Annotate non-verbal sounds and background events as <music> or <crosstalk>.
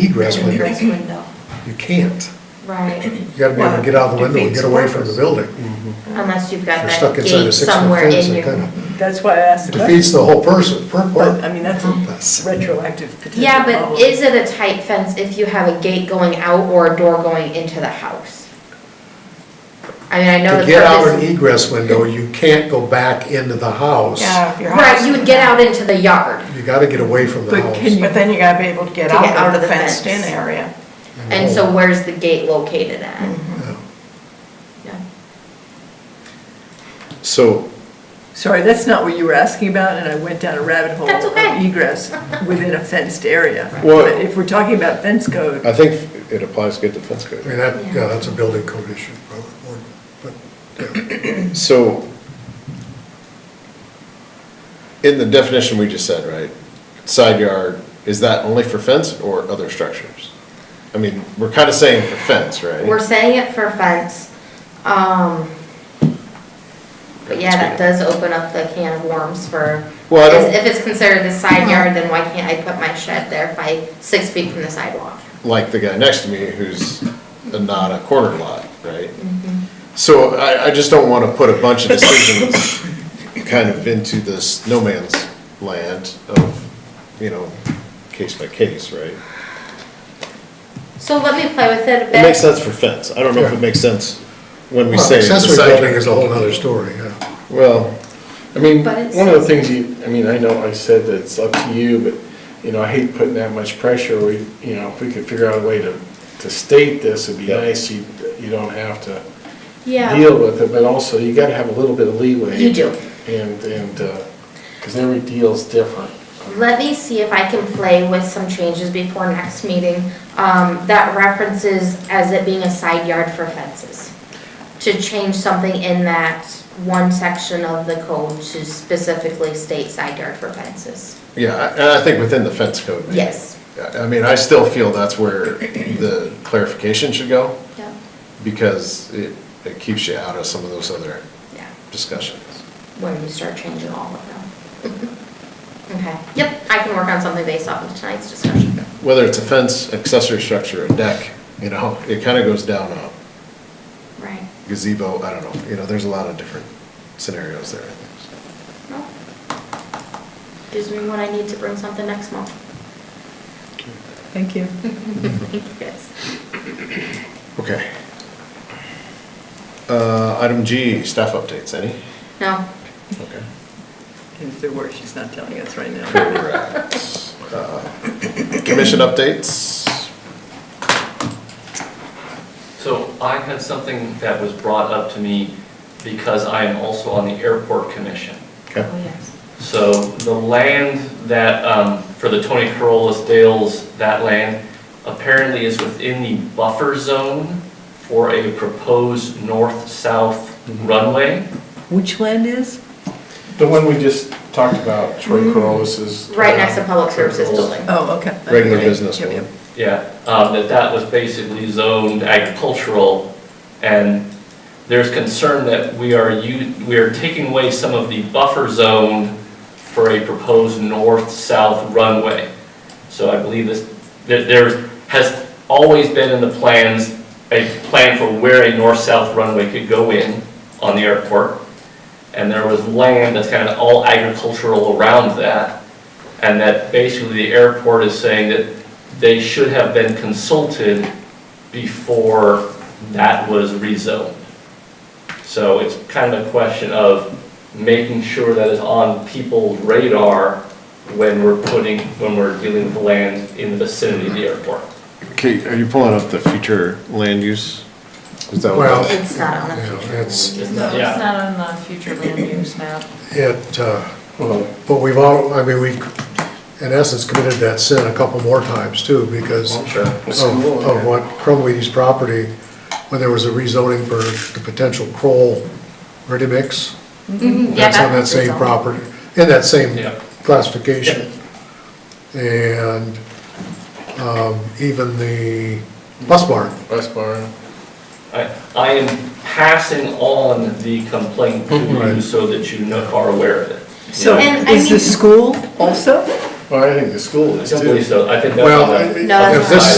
egress Egress window. window, You can't. right. You gotta be able to get out of the window and get away from the building. Unless you've got If you're that stuck inside a gate six-foot somewhere fence, in it your. kinda That's why I asked the defeats question. the whole person, pur- But, I mean, that's purpose. a retroactive potential Yeah, but problem. is it a tight fence if you have a gate going out or a door going into the house? I mean, I know To the get out an purpose- egress window, you can't go back into the house. Yeah, if your house. Right, you would get out into the yard. You gotta get away from the But can house. you- But then you gotta be able to get out of the fenced-in fence. area. Oh. And so where's the gate located Mm. at? Yeah. Yeah. So, Sorry, that's not what you were asking about, and I went down a rabbit hole That's of okay. egress within a fenced area. <laughs> Well- But if we're talking about fence code, I think it applies good to fence I mean, code. that, yeah, that's a building code issue, probably, or- but, yeah. So, in the definition we just said, right, side yard, is that only for fence or other structures? I mean, we're kind of saying for fence, right? We're saying it for fence, um, but yeah, that does open up the can of worms for, Well, I don't- if it's considered the side yard, then why can't I put my shed there by six feet from the sidewalk? Like the guy next to me who's not a corner lot, right? So I, I just don't want to put a bunch of decisions kind of into this no man's land of, you know, case by case, right? So let me play with it a bit. It makes sense for fence. I don't know if Yeah. it makes sense when we Well, say. the Accessory side building yard. is a whole nother story, yeah. Well, I mean, But it's- one of the things you, I mean, I know I said that it's up to you, but, you know, I hate putting that much pressure. We, you know, if we could figure out a way to, to state this, it'd be Yeah. nice. You, you don't have to Yeah. deal with it, but also you gotta have a little bit of leeway. You do. And, and, uh 'cause cause every deal's different. Let me see if I can play with some changes before next meeting, um, that references as it being a side yard for fences. To change something in that one section of the code to specifically state side yard for fences. yeah, I- and I think within the fence code. maybe. Yes. I- I mean, I still feel that's where the clarification should go Yeah. because it, it keeps you out of some of those other Yeah, discussions. when you start changing all of them. <laughs> Okay, yep, I can work on something based off of tonight's discussion. Whether it's a fence, accessory structure, a deck, you know, it kind of goes down a Right. gazebo, I don't know, you know, there's a lot of different scenarios there, I think. No. Gives me what I need to bring something next month. thank you. Mm-hmm. Yes. Okay. Uh, item G, staff updates, any? No, Okay. And if there were, she's not telling us right now. Correct. Uh, Commission updates? So I had something that was brought up to me because I am also on the airport commission. Okay. oh yes. So the land that, um, for the Tony Corollis Dales, that land apparently is within the buffer zone for a proposed north-south runway. Which land is? The one we just talked about, Troy Corollis is. Mm-hmm. uh, Right next to public services building. Oh, okay. Regular business Yep, one. yep. Yeah, um, that that was basically zoned agricultural, and there's concern that we are, u- we are taking away some of the buffer zone for a proposed north-south runway. So I believe this, there- there has always been in the plans, a plan for where a north-south runway could go in on the airport, and there was land that's kind of all agricultural around that, and that basically the airport is saying that they should have been consulted before that was rezoned. So it's kind of a question of making sure that it's on people's radar when we're putting, when we're dealing with land in the vicinity of the airport. Kate, are you pulling up the future land use? Is that Well, what? It's not on the Yeah, future. it's, It's No, not- it's Yeah, not on the future land use map. it, uh, Well, But we've all, I mean, we've, in essence, committed that sin a couple more times too, because I'm of, Oh, sure. School, of yeah. what Cromweedy's property, when there was a rezoning for the potential Kroll ready mix. Mhm, yeah, That's on that was same rezoned. property, in that same Yeah. classification. And, um, even the bus barn, West Barn. I, I am passing on the complaint to you Right. so that you know- are aware of it. So And I is the mean- school also? Well, I think the school I is don't too. believe so, I think that's on Well, the. I- No, that's if this,